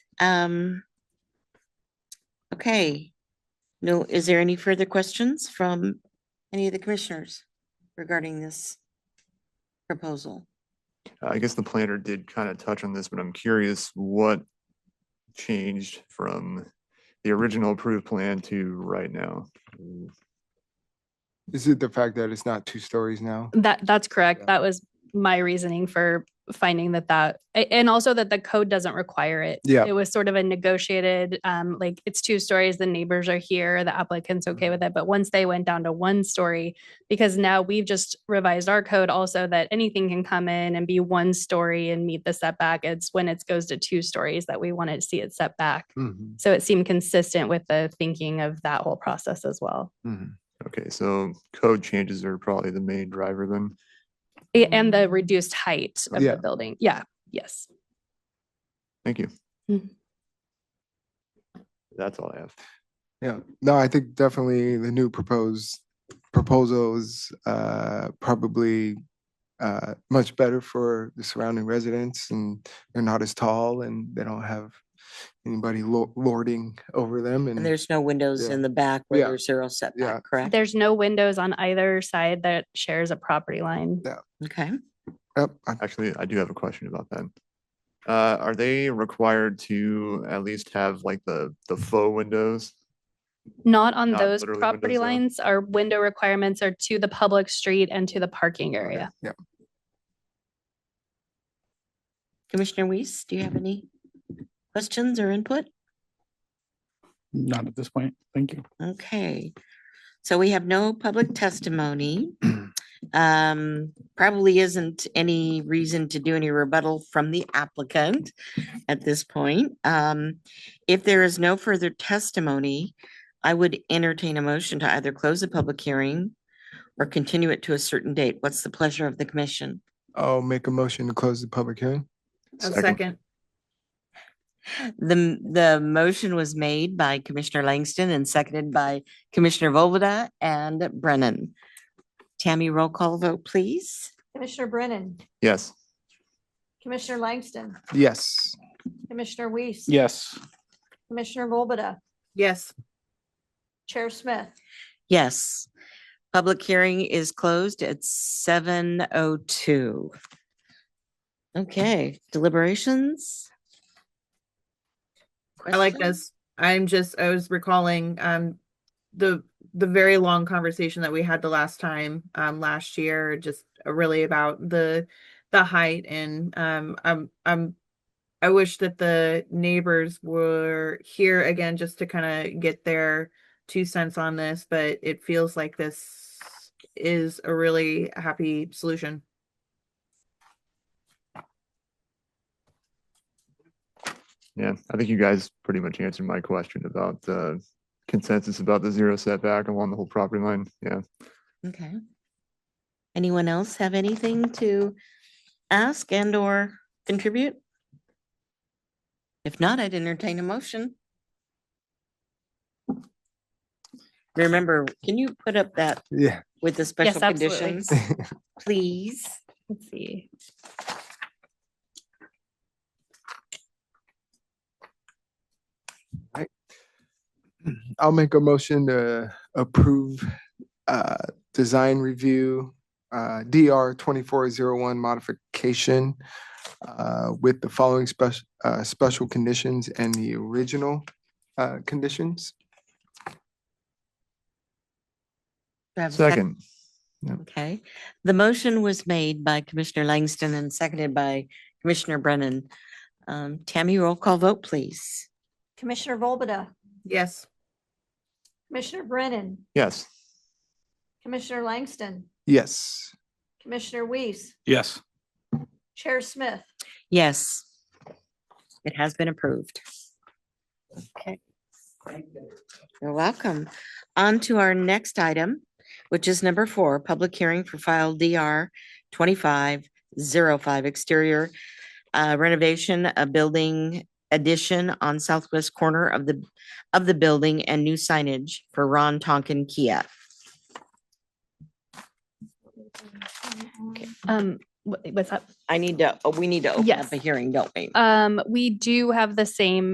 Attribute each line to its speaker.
Speaker 1: Um. Okay. No, is there any further questions from any of the commissioners regarding this proposal?
Speaker 2: I guess the planner did kind of touch on this, but I'm curious what changed from the original approved plan to right now?
Speaker 3: Is it the fact that it's not two stories now?
Speaker 4: That, that's
Speaker 3: Yeah.
Speaker 4: correct. That was my reasoning for finding that that, a- and also that the code doesn't require it.
Speaker 3: Yeah.
Speaker 4: It was sort of a negotiated, um, like it's two stories, the neighbors are here, the applicant's
Speaker 3: Mm-hmm.
Speaker 4: okay with it. But once they went down to one story, because now we've just revised our code also that anything can come in and be one story and meet the setback. It's when it goes to two stories that we want to see it set back.
Speaker 3: Mhm,
Speaker 4: So it seemed consistent with the thinking of that whole process as well.
Speaker 3: mhm.
Speaker 2: Okay, so code changes are probably the main driver then.
Speaker 4: A- And the reduced height of
Speaker 3: Mm-hmm. Yeah.
Speaker 4: the building. Yeah, yes.
Speaker 2: Thank you.
Speaker 4: Mhm.
Speaker 2: That's all I have.
Speaker 3: Yeah, no, I think definitely the new proposed proposals uh probably uh much better for the surrounding residents and they're not as tall and they don't have anybody lo- lording over them
Speaker 1: And
Speaker 3: and
Speaker 1: there's no windows
Speaker 3: Mm. Yeah.
Speaker 1: in the back where
Speaker 3: Yeah.
Speaker 1: there's zero setback, correct?
Speaker 4: There's no windows on either side that shares a property line.
Speaker 1: Okay,
Speaker 3: Yep, I-
Speaker 2: Actually, I do have a question about that. Uh, are they required to at least have like the, the faux windows?
Speaker 4: Not on
Speaker 2: Not
Speaker 4: those
Speaker 2: literally
Speaker 4: property
Speaker 2: windows, though.
Speaker 4: lines. Our window requirements are to the public street and to the parking area.
Speaker 3: yeah.
Speaker 1: Commissioner Weiss, do you have any questions or input?
Speaker 5: Not at this point. Thank you.
Speaker 1: Okay, so we have no public testimony. Um, probably isn't any reason to do any rebuttal from the applicant at this point. Um, if there is no further testimony, I would entertain a motion to either close the public hearing or continue it to a certain date. What's the pleasure of the commission?
Speaker 3: I'll make a motion to close the public hearing.
Speaker 1: The, m- the motion was made by Commissioner Langston and seconded by Commissioner Volbada and Brennan. Tammy, roll call vote, please.
Speaker 6: Commissioner Brennan,
Speaker 2: Yes.
Speaker 6: Commissioner Langston,
Speaker 3: Yes.
Speaker 6: Commissioner Weiss.
Speaker 5: Yes.
Speaker 6: Commissioner Volbada,
Speaker 7: Yes,
Speaker 6: Chair Smith.
Speaker 1: Yes. Public hearing is closed at seven oh two. Okay, deliberations?
Speaker 7: I like
Speaker 1: Questions?
Speaker 7: this. I'm just, I was recalling, um, the, the very long conversation that we had the last time, um, last year, just really about the, the height and, um, I'm, I'm, I wish that the neighbors were here again, just to kind of get their two cents on this, but it feels like this is a really happy solution.
Speaker 2: Yeah, I think you guys pretty much answered my question about uh consensus about the zero setback along the whole property line. Yeah.
Speaker 1: Okay. Anyone else have anything to ask and or contribute? If not, I'd entertain a motion. Remember, can you put up that
Speaker 3: Yeah.
Speaker 1: with the special
Speaker 4: absolutely.
Speaker 1: conditions? Please.
Speaker 4: Let's see.
Speaker 3: I'll make a motion to approve uh design review uh DR twenty-four zero one modification uh with the following special uh special conditions and the original uh conditions.
Speaker 1: Do I have a
Speaker 2: Second,
Speaker 1: Okay, the motion was made by Commissioner Langston and seconded by Commissioner Brennan. Um, Tammy, roll call vote, please.
Speaker 6: Commissioner Volbada,
Speaker 7: Yes.
Speaker 6: Commissioner Brennan,
Speaker 2: yes.
Speaker 6: Commissioner Langston,
Speaker 3: Yes.
Speaker 6: Commissioner Weiss,
Speaker 5: Yes.
Speaker 6: Chair Smith.
Speaker 1: Yes. It has been approved. Okay. You're welcome. On to our next item, which is number four, public hearing for file DR twenty-five zero five exterior uh, renovation, a building addition on southwest corner of the, of the building and new signage for Ron Tonkin Kia.
Speaker 4: Um, wha- what's up?
Speaker 1: I need to, oh, we need to open up
Speaker 4: Yes.
Speaker 1: a hearing, don't we?
Speaker 4: Um, we do have the same